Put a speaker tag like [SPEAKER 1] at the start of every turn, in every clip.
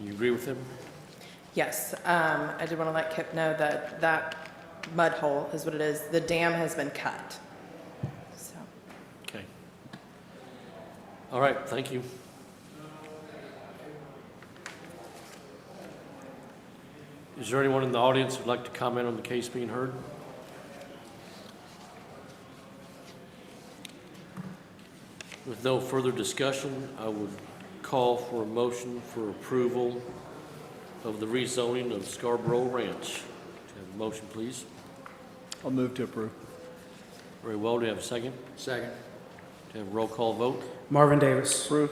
[SPEAKER 1] You agree with him?
[SPEAKER 2] Yes, um, I did want to let Kip know that that mud hole is what it is. The dam has been cut. So,
[SPEAKER 1] Okay. All right, thank you. Is there anyone in the audience who'd like to comment on the case being heard? With no further discussion, I would call for a motion for approval of the rezoning of Scarborough Ranch. Do you have a motion, please?
[SPEAKER 3] I'll move to approve.
[SPEAKER 1] Very well, do you have a second?
[SPEAKER 3] Second.
[SPEAKER 1] Do you have a roll call vote?
[SPEAKER 4] Marvin Davis.
[SPEAKER 3] Approve.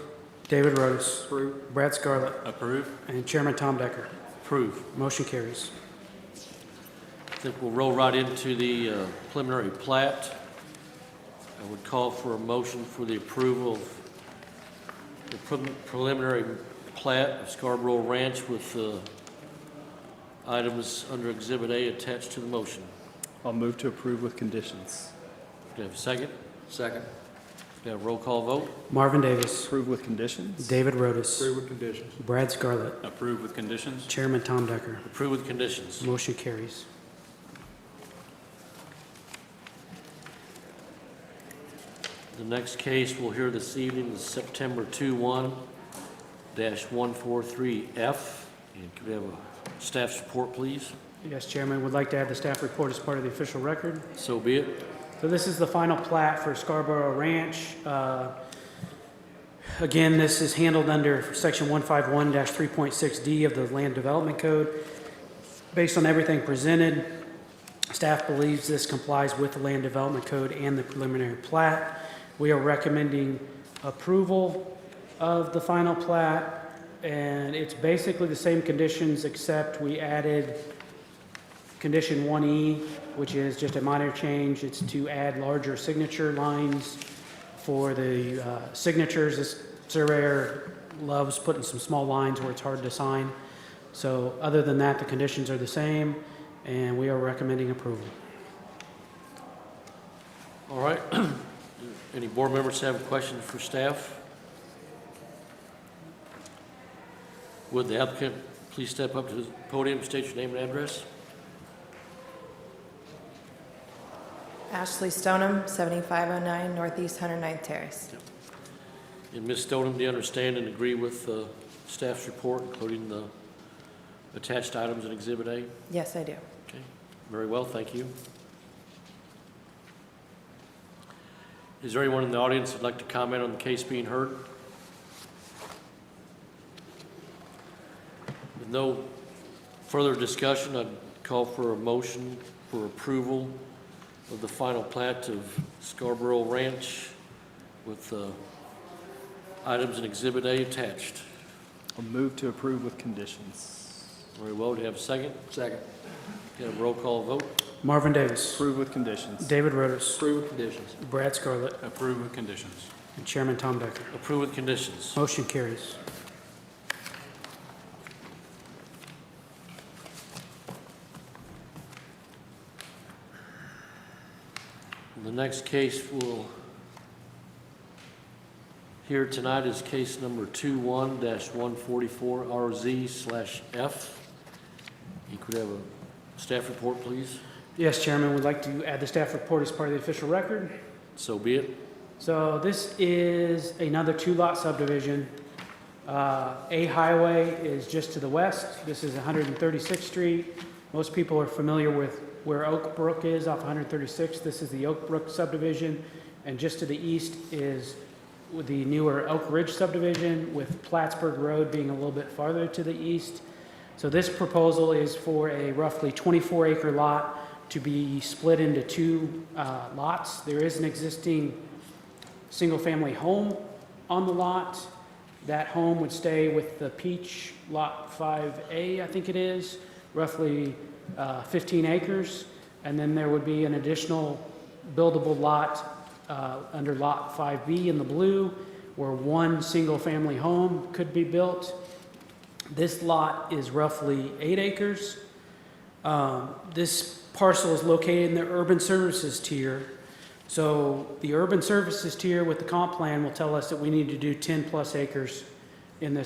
[SPEAKER 4] David Rotis. Brad Scarlett.
[SPEAKER 1] Approve.
[SPEAKER 4] And Chairman Tom Decker.
[SPEAKER 1] Approve.
[SPEAKER 4] Motion carries.
[SPEAKER 1] I think we'll roll right into the uh, preliminary plat. I would call for a motion for the approval of the prelim- preliminary plat of Scarborough Ranch with the items under Exhibit A attached to the motion.
[SPEAKER 3] I'll move to approve with conditions.
[SPEAKER 1] Do you have a second? Second. Do you have a roll call vote?
[SPEAKER 4] Marvin Davis.
[SPEAKER 3] Approve with conditions?
[SPEAKER 4] David Rotis.
[SPEAKER 3] with conditions.
[SPEAKER 4] Brad Scarlett.
[SPEAKER 5] Approve with conditions?
[SPEAKER 4] Chairman Tom Decker.
[SPEAKER 1] Approve with conditions.
[SPEAKER 4] Motion carries.
[SPEAKER 1] The next case we'll hear this evening is September 21-143F. And could we have a staff support, please?
[SPEAKER 4] Yes, Chairman, would like to add the staff report as part of the official record.
[SPEAKER 1] So be it.
[SPEAKER 4] So this is the final plat for Scarborough Ranch. Uh, Again, this is handled under Section 151-3.6D of the Land Development Code. Based on everything presented, staff believes this complies with the Land Development Code and the preliminary plat. We are recommending approval of the final plat, and it's basically the same conditions, except we added Condition 1E, which is just a minor change, it's to add larger signature lines for the uh, signatures. This surveyor loves putting some small lines where it's hard to sign. So other than that, the conditions are the same, and we are recommending approval.
[SPEAKER 1] All right. Any board members have questions for staff? Would the applicant please step up to the podium, state your name and address?
[SPEAKER 2] Ashley Stoneham, 7509 Northeast 109th Terrace.
[SPEAKER 1] And Ms. Stoneham, do you understand and agree with the staff's report, including the attached items in Exhibit A?
[SPEAKER 2] Yes, I do.
[SPEAKER 1] Okay, very well, thank you. Is there anyone in the audience that'd like to comment on the case being heard? With no further discussion, I'd call for a motion for approval of the final plat of Scarborough Ranch with uh, items in Exhibit A attached.
[SPEAKER 3] I'll move to approve with conditions.
[SPEAKER 1] Very well, do you have a second? Second. Get a roll call vote?
[SPEAKER 4] Marvin Davis.
[SPEAKER 3] Approve with conditions.
[SPEAKER 4] David Rotis.
[SPEAKER 1] Approve with conditions.
[SPEAKER 4] Brad Scarlett.
[SPEAKER 5] Approve with conditions.
[SPEAKER 4] And Chairman Tom Decker.
[SPEAKER 1] Approve with conditions.
[SPEAKER 4] Motion carries.
[SPEAKER 1] The next case we'll hear tonight is case number 21-144RZ/F. You could have a staff report, please.
[SPEAKER 4] Yes, Chairman, would like to add the staff report as part of the official record.
[SPEAKER 1] So be it.
[SPEAKER 4] So this is another two-lot subdivision. Uh, A Highway is just to the west. This is 136th Street. Most people are familiar with where Oak Brook is off 136th. This is the Oak Brook subdivision. And just to the east is with the newer Oak Ridge subdivision, with Plattsburgh Road being a little bit farther to the east. So this proposal is for a roughly 24-acre lot to be split into two uh, lots. There is an existing single-family home on the lot. That home would stay with the Peach Lot 5A, I think it is, roughly uh, 15 acres. And then there would be an additional buildable lot uh, under Lot 5B in the blue, where one single-family home could be built. This lot is roughly eight acres. Um, This parcel is located in the urban services tier. So the urban services tier with the comp plan will tell us that we need to do 10-plus acres in this